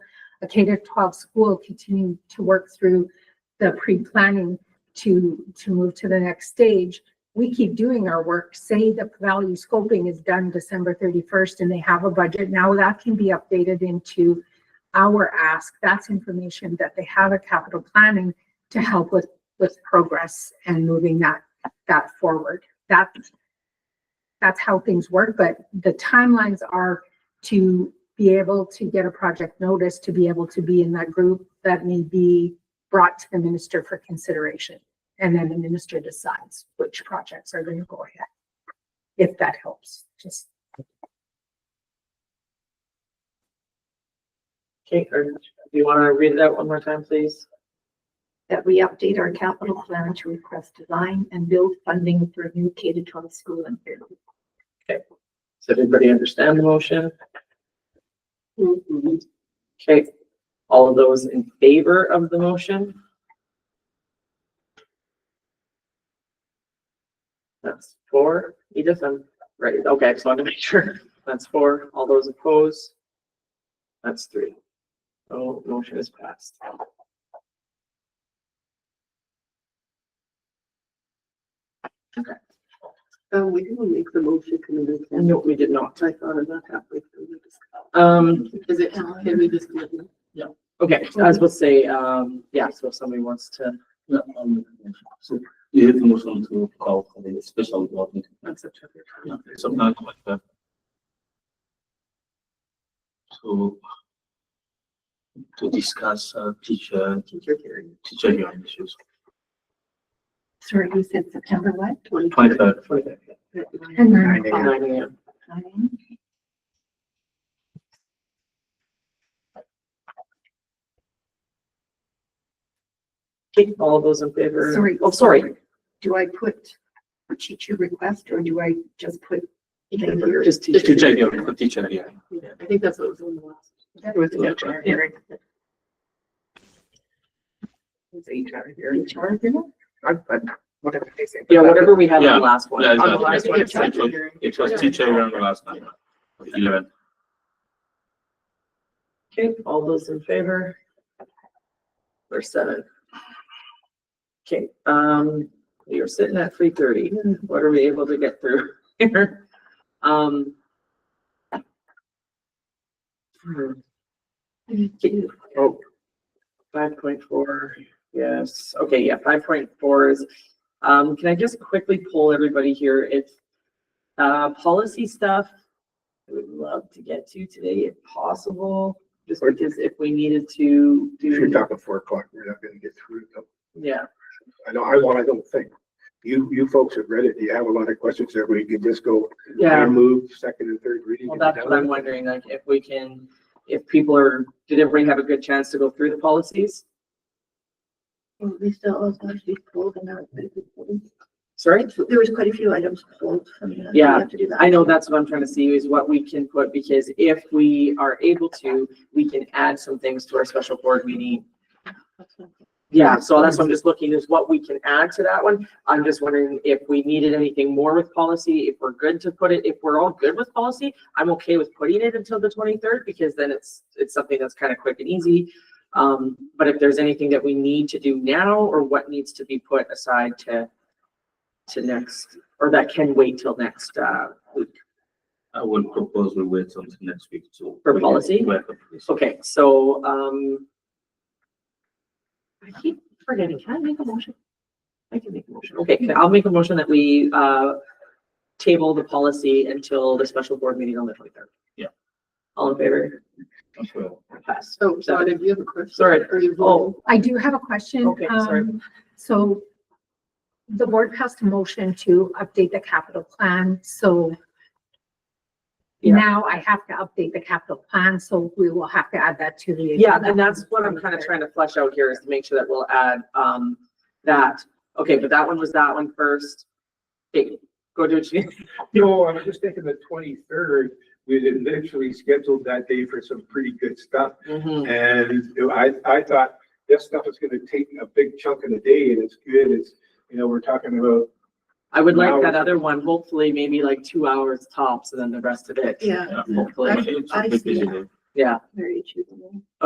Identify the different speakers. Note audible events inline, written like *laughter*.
Speaker 1: a K to twelve school continuing to work through the pre-planning to, to move to the next stage. We keep doing our work, say the value scoping is done December thirty-first and they have a budget, now that can be updated into our ask, that's information that they have at capital planning to help with, with progress and moving that, that forward. That, that's how things work, but the timelines are to be able to get a project notice, to be able to be in that group that may be brought to the minister for consideration. And then the minister decides which projects are going to go ahead. If that helps, just.
Speaker 2: Okay, or do you want to read it out one more time, please?
Speaker 3: that we update our capital plan to request design and build funding for new K to twelve school in Fairview.
Speaker 2: Does everybody understand the motion? Okay, all of those in favor of the motion? That's four. Edith, I'm right. Okay, I just wanted to make sure. That's four. All those opposed? That's three. So motion is passed.
Speaker 4: Um, we didn't make the motion committee.
Speaker 2: No, we did not.
Speaker 4: I thought of that halfway through the discussion.
Speaker 2: Um,
Speaker 4: Is it, can we just? let them?
Speaker 2: okay, I was supposed to say, um, yeah, so if somebody wants to,
Speaker 5: Yeah, um, so you have to move on to call for the special board meeting.
Speaker 2: that's up to you.
Speaker 5: Yeah, Something like that. To to discuss uh, teacher,
Speaker 4: Teacher hearing.
Speaker 5: teacher union issues,
Speaker 3: Sorry, you said September what?
Speaker 5: twenty-third.
Speaker 1: And
Speaker 3: Nine o'clock.
Speaker 2: Nine AM.
Speaker 3: Nine.
Speaker 2: Okay, all of those in favor?
Speaker 3: Sorry.
Speaker 2: Oh, sorry,
Speaker 3: Do I put for teacher request or do I just put?
Speaker 4: Teacher hearing.
Speaker 2: just teacher.
Speaker 5: Teacher union, for teacher union.
Speaker 4: Yeah, I think that's what was on the last.
Speaker 3: That was
Speaker 5: Yeah.
Speaker 3: HR hearing.
Speaker 4: It's HR hearing. HR hearing? I, I, whatever they say.
Speaker 2: Yeah, whatever we had on
Speaker 5: Yeah,
Speaker 2: the last one.
Speaker 5: yeah,
Speaker 2: On the
Speaker 5: exactly.
Speaker 2: last one, it's
Speaker 5: Yeah.
Speaker 2: like-
Speaker 5: It was teacher union last night, eleven.
Speaker 2: Okay, all those in favor? We're seven. Okay, um, we are sitting at three thirty. What are we able to get through *laughs* here? Um. hmm,
Speaker 4: Mm-hmm.
Speaker 2: Oh. Five point four, yes, okay, yeah, five point four is, um, can I just quickly poll everybody here? It's uh, policy stuff I would love to get to today if possible, just because if we needed to
Speaker 6: If you're
Speaker 2: do,
Speaker 6: talking four o'clock, we're not gonna get through them.
Speaker 2: yeah.
Speaker 6: I know, I, well, I don't think. You, you folks have read it. Do you have a lot of questions there? We can just go, I move second and third reading.
Speaker 2: Well,
Speaker 6: and be
Speaker 2: that's
Speaker 6: done
Speaker 2: what I'm
Speaker 6: with it.
Speaker 2: wondering, like, if we can, if people are, did everybody have a good chance to go through the policies?
Speaker 3: Well, we still have to be pulled and not.
Speaker 2: Sorry?
Speaker 3: There was quite a few items pulled. I mean, we
Speaker 2: Yeah,
Speaker 3: have to do that.
Speaker 2: I know that's what I'm trying to see is what we can put, because if we are able to, we can add some things to our special board meeting. Yeah, so that's what I'm just looking is what we can add to that one. I'm just wondering if we needed anything more with policy, if we're good to put it, if we're all good with policy, I'm okay with putting it until the twenty-third, because then it's, it's something that's kind of quick and easy. Um, but if there's anything that we need to do now, or what needs to be put aside to, to next, or that can wait till next, uh, week.
Speaker 5: I would propose we wait until next week to.
Speaker 2: For policy?
Speaker 5: Work on this.
Speaker 2: Okay, so, um. I keep forgetting, can I make a motion? I can make a motion, okay, can- I'll make a motion that we, uh, table the policy until the special board meeting on the twenty-third.
Speaker 5: Yeah.
Speaker 2: All in favor?
Speaker 5: Okay.
Speaker 2: Pass.
Speaker 4: So,
Speaker 3: Oh,
Speaker 4: John, if you have a question.
Speaker 2: Sorry.
Speaker 4: Or you vote.
Speaker 2: Oh,
Speaker 1: I do have a question.
Speaker 2: Okay, sorry.
Speaker 1: Um, So the board passed a motion to update the capital plan, so
Speaker 2: Yeah.
Speaker 1: now I have to update the capital plan, so we will have to add that to the.
Speaker 2: yeah,
Speaker 1: agenda.
Speaker 2: and that's what I'm kind of trying to flesh out here is to make sure that we'll add, um, that. Okay, but that one was that one first. Okay, go do what you *laughs* need.
Speaker 6: No, I was just thinking the twenty-third, we had initially scheduled that day for some pretty good stuff.
Speaker 2: Mhm.
Speaker 6: And I, I thought this stuff is gonna take a big chunk of the day and it's good. It's, you know, we're talking about
Speaker 2: I would like
Speaker 6: Now-
Speaker 2: that other one, hopefully maybe like two hours tops and then the rest of it.
Speaker 3: Yeah,
Speaker 5: Yeah,
Speaker 2: Hopefully.
Speaker 5: It's a
Speaker 3: I
Speaker 5: bit
Speaker 3: see.
Speaker 5: busy day.
Speaker 2: Yeah.
Speaker 3: very achievable.